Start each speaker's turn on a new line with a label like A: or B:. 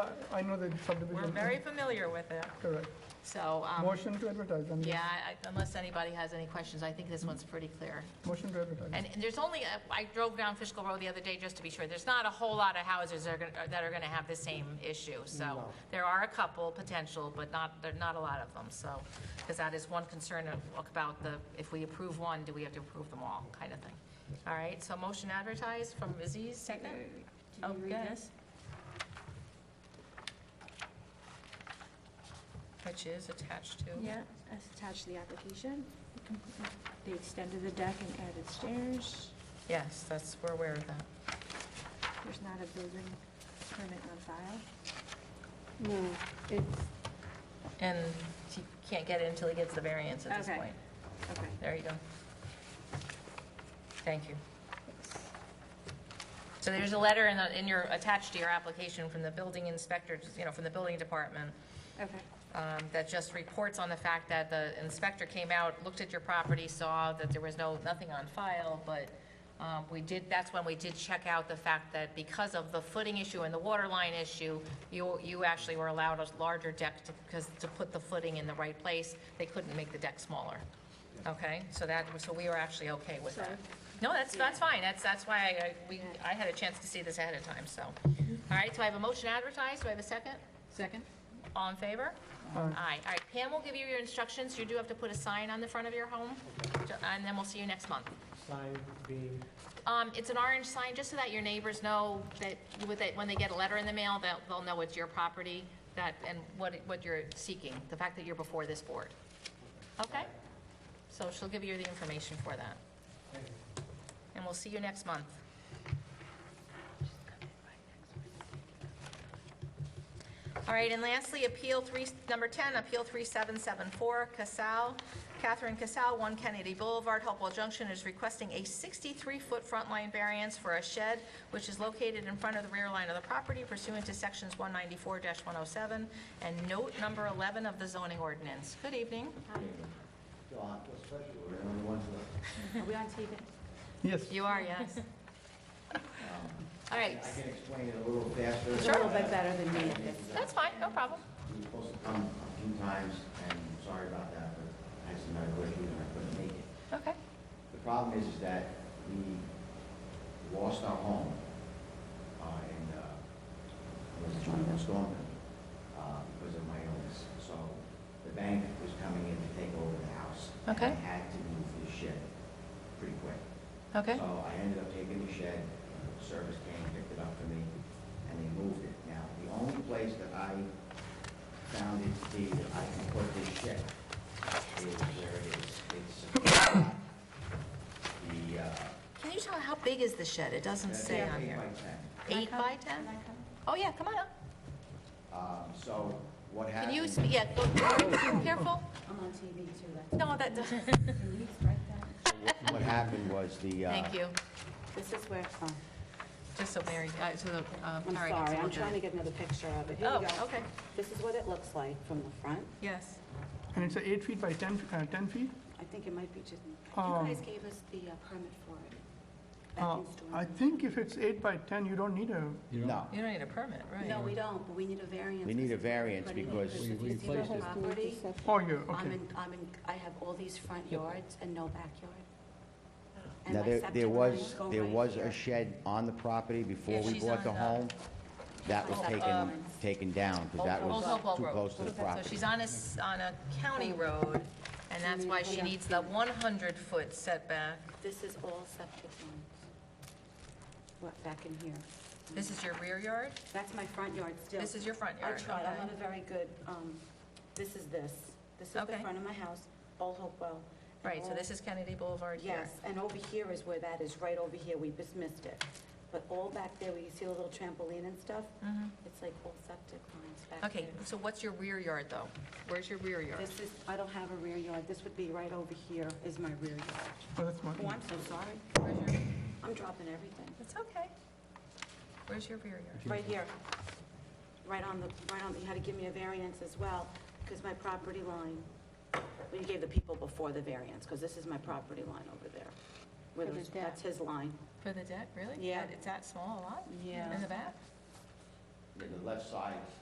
A: I- I know the subdivision.
B: We're very familiar with it,
A: Correct.
B: so, um,
A: Motion to advertise, then.
B: yeah, I- unless anybody has any questions, I think this one's pretty clear.
A: Motion to advertise.
B: And and there's only, a- I drove down Fishkill Road the other day just to be sure, there's not a whole lot of houses that are gonna- that are going to have the same issue. So there are a couple potential, but not, there are not a lot of them, so, because that is one concern of- about the, if we approve one, do we have to approve them all, kind of thing. All right, so motion advertised from Aziz, second?
C: Did you read
B: Okay.
C: this?
B: Which is attached to?
C: Yeah, as attached to the application. They extended the deck and added stairs.
B: Yes, that's, we're aware of that.
C: There's not a building permit on file.
D: No, it's,
B: And she can't get it until he gets the variance at this
C: Okay.
B: point.
C: Okay.
B: There you go. Thank you. So there's a letter in, the- in your, attached to your application from the building inspector, you know, from the building department,
C: Okay.
B: um, that just reports on the fact that the inspector came out, looked at your property, saw that there was no, nothing on file, but um, we did, that's when we did check out the fact that because of the footing issue and the water line issue, you, you actually were allowed a larger deck to, because to put the footing in the right place, they couldn't make the deck smaller. Okay, so that, so we were actually okay with that.
C: Sorry.
B: No, that's, that's fine, that's, that's why I, I- we, I had a chance to see this ahead of time, so. All right, so I have a motion advertised, do I have a second? Second. All in favor?
A: Aye.
B: All right, Pam will give you your instructions, you do have to put a sign on the front of your home, and then we'll see you next month.
E: sign being,
B: Um, it's an orange sign, just so that your neighbors know that, with it, when they get a letter in the mail, that they'll know it's your property, that, and what, it- what you're seeking, the fact that you're before this board. Okay? So she'll give you the information for that. And we'll see you next month. All right, and lastly, Appeal 3, number 10, Appeal 3774, Casal, Catherine Casal, 1 Kennedy Boulevard, Hopewell Junction, is requesting a 63-foot front line variance for a shed which is located in front of the rear line of the property pursuant to Sections 194-107 and Note Number 11 of the zoning ordinance. Good evening.
F: John, especially, we're the only ones that,
C: Are we on TV?
A: Yes.
B: You are, yes. All right,
F: I can explain it a little faster.
B: Sure. A little
F: bit better than me.
B: that's fine, no problem.
F: He was supposed to come a few times, and sorry about that, but I had some medical issues and I couldn't make it.
B: Okay.
F: The problem is, is that we lost our home, uh, in, uh, it was John Van Storm, uh, because of my illness. So the bank was coming in to take over the house.
B: Okay.
F: And I had to move the shed pretty quick.
B: Okay.
F: So I ended up taking the shed, service came, picked it up for me, and they moved it. Now, the only place that I found it to be that I can put this shed is where it is. It's uh, the, uh.
B: Can you tell how big is the shed? It doesn't say on
F: Eight
B: here.
F: by ten.
B: Eight by 10?
C: Can I come?
B: Oh, yeah, come on up.
F: Um, so what
B: Can
F: happened?
B: you, sp- yeah, go, be careful.
C: I'm on TV too, that's.
B: No, that doesn't,
C: Can you write that?
F: What happened was the, uh.
B: thank you.
D: this is where, oh,
B: Just so Mary, uh, so the, uh,
D: I'm
B: Mary gets
D: sorry,
B: to
D: I'm
B: look at
D: trying to
B: it.
D: get another picture of it. Here
B: Oh,
D: we go.
B: okay.
D: This is what it looks like from the front.
B: Yes.
A: And it's uh, eight feet by 10, uh, 10 feet?
D: I think it might be just, you
A: Um,
D: guys gave us the uh, permit for it.
A: Uh,
D: back in storm.
A: I think if it's eight by 10, you don't need a,
F: No,
B: You don't need a permit, right?
D: No, we don't, but we need a variance.
F: We need a
D: because
F: variance
D: everybody-
F: because-
D: if you see the whole property,
A: oh, yeah,
D: I'm
A: okay.
D: in, I'm in, I have all these front yards and no backyard. And
F: Now,
D: my
F: there,
D: septic
F: there was,
D: lines go
F: there
D: right
F: was a
D: here.
F: shed on the property before
B: Yeah,
F: we
B: she's
F: bought the
B: on, uh,
F: home. That was
D: Old
F: taken,
D: Hopewell.
F: taken down, because that
B: Old Hopewell
F: was too
B: Road.
F: close to the
B: So
F: property.
B: she's on a, s- on a
D: Oh.
B: county road, and that's why she needs the 100-foot setback.
D: This is all septic lines. What, back in here?
B: This is your rear yard?
D: That's my front yard still.
B: This is your front
D: I
B: yard,
D: tried, I'm
B: okay.
D: not a very good, um, this is this. This is the
B: Okay.
D: front of my house, Old Hopewell. and
B: Right, so
D: all-
B: this is Kennedy Boulevard here.
D: Oh. Yes, and over here is where that is, right over here, we dismissed it. But all back there, where you see the little trampoline and stuff, it's like all septic lines back there.
B: Mm-hmm. Okay, so what's your rear yard, though? Where's your rear yard?
D: This is, I don't have a rear yard, this would be right over here is my rear yard.
A: Oh, that's
D: Oh,
A: one.
D: I'm so sorry,
B: Where's your-
D: I'm dropping everything.
B: It's okay. Where's your rear yard?
D: Right here, right on the, right on, you had to give me a variance as well, because my property line, well, you gave the people before the variance, because this is my property line over there. Where
C: For the
D: those-
C: deck.
D: That's his line.
B: For the deck, really?
D: Yeah.
B: That- It's that small a lot?
D: Yeah.
B: In the back?
F: the left side